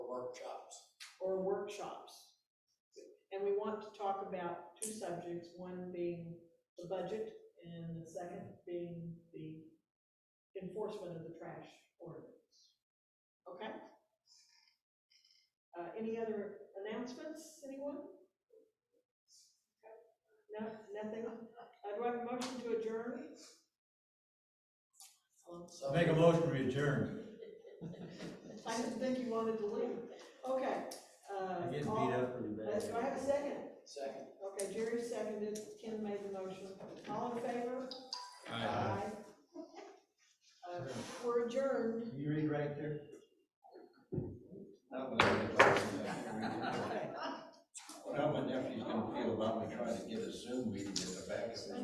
and we want to talk about two subjects, one being the budget and the second being the enforcement of the trash ordinance. Okay? Uh, any other announcements, anyone? No, nothing? Uh, do I have a motion to adjourn? Um, Make a motion, we adjourn. I didn't think you wanted to leave. Okay, uh. I get beat call- up pretty bad. Let's, do I have a second? Second. Okay, Jerry seconded, Ken made the motion. All in favor? Aye. Uh, we're adjourned. Can you read right there? Not what I'm gonna- Okay. not what my nephew's gonna feel about me trying to get a Zoom meeting in the back of the